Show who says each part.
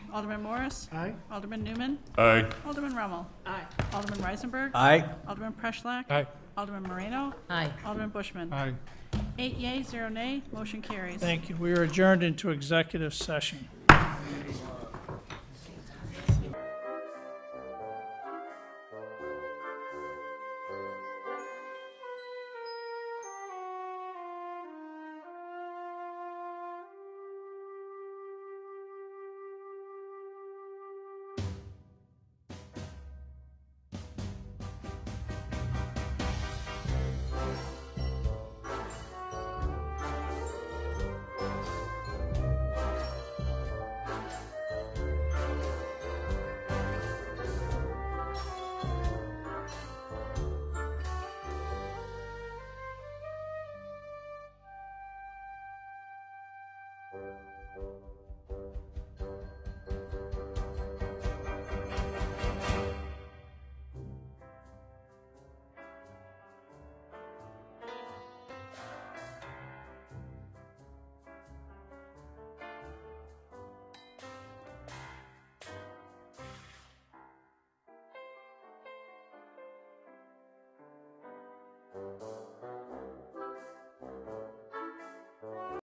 Speaker 1: Alderman Morris.
Speaker 2: Aye.
Speaker 1: Alderman Newman.
Speaker 3: Aye.
Speaker 1: Alderman Rommel.
Speaker 4: Aye.
Speaker 1: Alderman Reisenberg.
Speaker 5: Aye.
Speaker 1: Alderman Preschlack.
Speaker 3: Aye.
Speaker 1: Alderman Moreno.
Speaker 4: Aye.
Speaker 1: Alderman Bushman.
Speaker 3: Aye.
Speaker 1: Eight yea, zero nay, motion carries.
Speaker 2: Thank you. We are adjourned into executive session.